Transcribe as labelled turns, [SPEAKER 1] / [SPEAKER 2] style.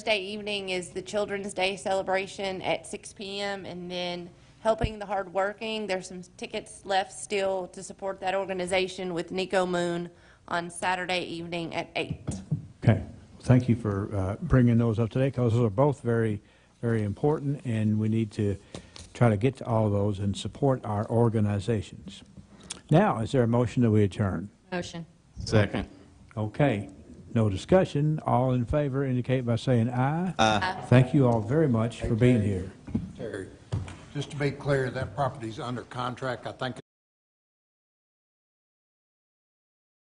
[SPEAKER 1] Thursday evening is the Children's Day celebration at 6 PM, and then Helping the Hardworking, there's some tickets left still to support that organization with Nico Moon on Saturday evening at 8.
[SPEAKER 2] Okay, thank you for uh, bringing those up today, because those are both very, very important, and we need to try to get to all those and support our organizations. Now, is there a motion that we adjourn?
[SPEAKER 3] Motion.
[SPEAKER 4] Second.
[SPEAKER 2] Okay, no discussion, all in favor indicate by saying aye. Aye. Thank you all very much for being here.
[SPEAKER 5] Terry, just to be clear, that property's under contract. I think